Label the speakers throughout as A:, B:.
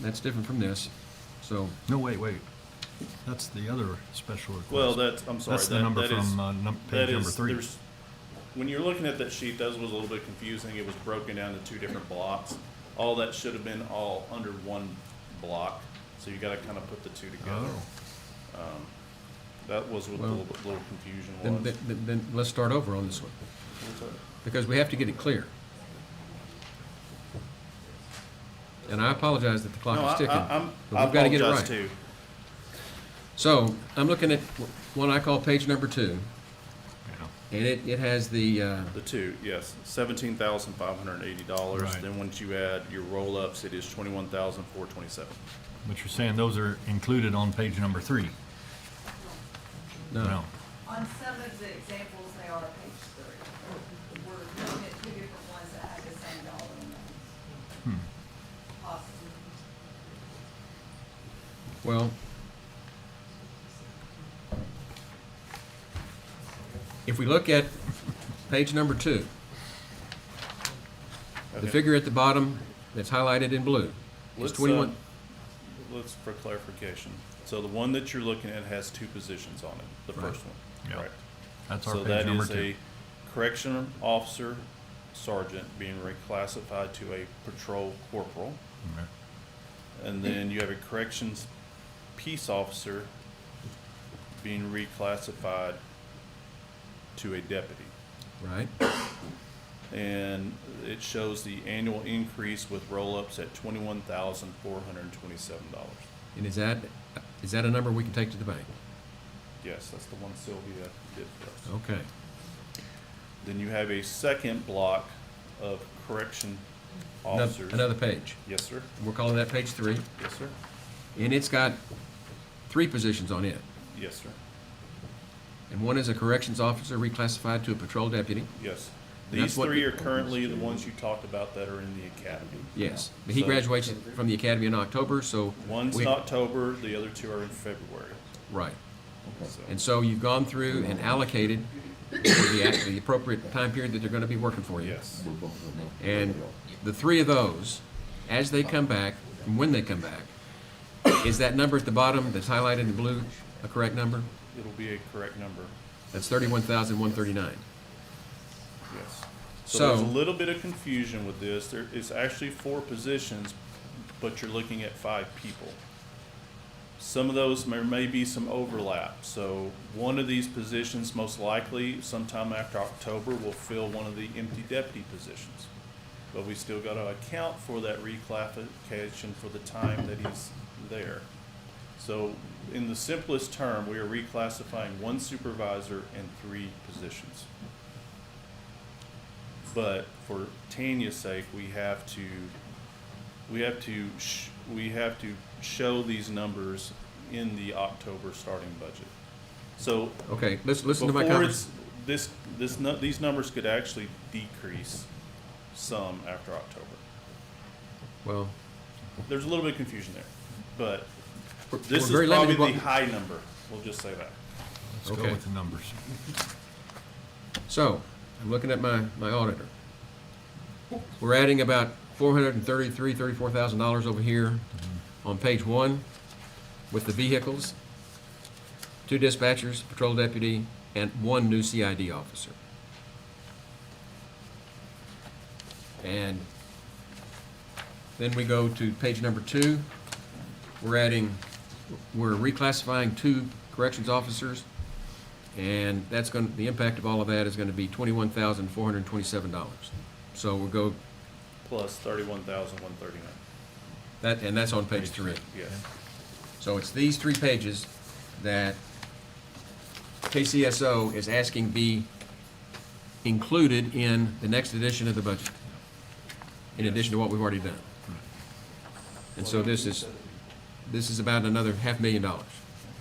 A: that's different from this, so,
B: No, wait, wait. That's the other special request.
C: Well, that's, I'm sorry.
B: That's the
C: that-
B: number
C: that is-
B: from, uh, num-
C: that
B: page number
C: is-
B: three.
C: there's- When you're looking at that sheet, that was a little bit confusing. It was broken down to two different blocks. All that should have been all under one block, so you gotta kind of put the two together.
B: Oh,
C: That was what the
A: Well,
C: little bit- little confusion
A: then,
C: was.
A: then, then let's start over on this one, because we have to get it clear. And I apologize that the
C: No,
A: clock
C: I,
A: is ticking.
C: I, I'm-
A: but
C: I
A: we've gotta get it
C: apologize
A: right.
C: too.
A: So, I'm looking at wh- one I call page number two,
B: yeah.
A: and it, it has the, uh,
C: The two, yes, seventeen thousand five hundred and eighty dollars.
B: Right.
C: Then once you add your roll-ups, it is twenty-one thousand four twenty-seven.
B: But you're saying those are included on page number three?
A: no,
D: On some of the examples, they are page three. We're looking at two different ones that have the same dollar amount.
A: Hmm.
D: Possibly.
A: well. If we look at page number two, the
C: Okay.
A: figure at the bottom that's highlighted in blue is
C: Let's, uh,
A: twenty-one.
C: Let's, for clarification, so the one that you're looking at has two positions on it, the
A: Right.
C: first one,
B: Yeah.
C: correct?
B: That's our
C: So
B: page
C: that
B: number
C: is
B: two.
C: a correction officer sergeant being reclassified to a patrol corporal.
B: Okay.
C: And then you have a corrections peace officer being reclassified to a deputy.
A: Right,
C: And it shows the annual increase with roll-ups at twenty-one thousand four hundred and twenty-seven dollars.
A: and is that, is that a number we can take to the bank?
C: Yes, that's the one Sylvia did for us.
A: Okay,
C: Then you have a second block of correction
A: another,
C: officers.
A: another page.
C: Yes, sir.
A: We're calling that page three,
C: Yes, sir.
A: and it's got three positions on it.
C: Yes, sir.
A: And one is a corrections officer reclassified to a patrol deputy.
C: Yes.
A: And that's
C: These
A: what
C: three
A: the-
C: are currently the ones you talked about that are in the academy.
A: Yes, but he
C: So-
A: graduates from the academy in October, so.
C: One's
A: we-
C: in October, the other two are in February.
A: Right,
C: So-
A: and so you've gone through and allocated for the, the appropriate time period that they're gonna be working for you.
C: Yes,
A: And the three of those, as they come back, and when they come back, is that number at the bottom that's highlighted in blue a correct number?
C: it'll be a correct number.
A: That's thirty-one thousand, one thirty-nine.
C: Yes. So there's a
A: So-
C: little bit of confusion with this. There is actually four positions, but you're looking at five people. Some of those there may be some overlap, so one of these positions most likely sometime after October will fill one of the empty deputy positions. But we still gotta account for that reclassification for the time that he's there. So in the simplest term, we are reclassifying one supervisor and three positions. But for Tanya's sake, we have to, we have to, sh- we have to show these numbers in the October starting budget. So
A: Okay, let's listen to my
C: before
A: comments.
C: it's, this, this, nu- these numbers could actually decrease some after October.
A: Well,
C: There's a little bit of confusion there, but
A: we're we're
C: this
A: very
C: is
A: limited.
C: probably
A: what-
C: the high number. We'll just say that.
B: Let's go
A: Okay.
B: with the numbers.
A: So, I'm looking at my, my auditor. We're adding about four hundred and thirty-three, thirty-four thousand dollars over here on page one with the vehicles, two dispatchers, patrol deputy, and one new CID officer. And then we go to page number two. We're adding, we're reclassifying two corrections officers and that's going, to the impact of all of that is going to be twenty-one thousand, four hundred and twenty-seven dollars. So we'll go,
C: Plus thirty-one thousand one thirty-nine,
A: that, and that's on page three.
C: yes.
A: So it's these three pages that KCSO is asking be included in the next edition of the budget, in addition to what we've already done. And so this is, this is about another half million dollars.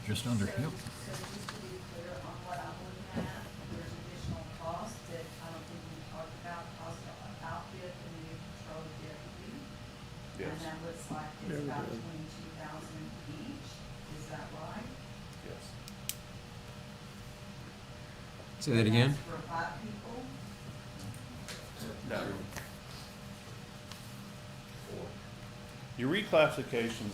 B: Just under, yep.
D: So just to be clear on what I'm looking at, there's additional costs that I don't think we talked about, cost of outfit and the new patrol deputy.
C: Yes.
D: And that looks like it's about twenty-two thousand each, is that right?
C: Yes.
A: Say that again?
D: That's For five people,
C: No. Your reclassifications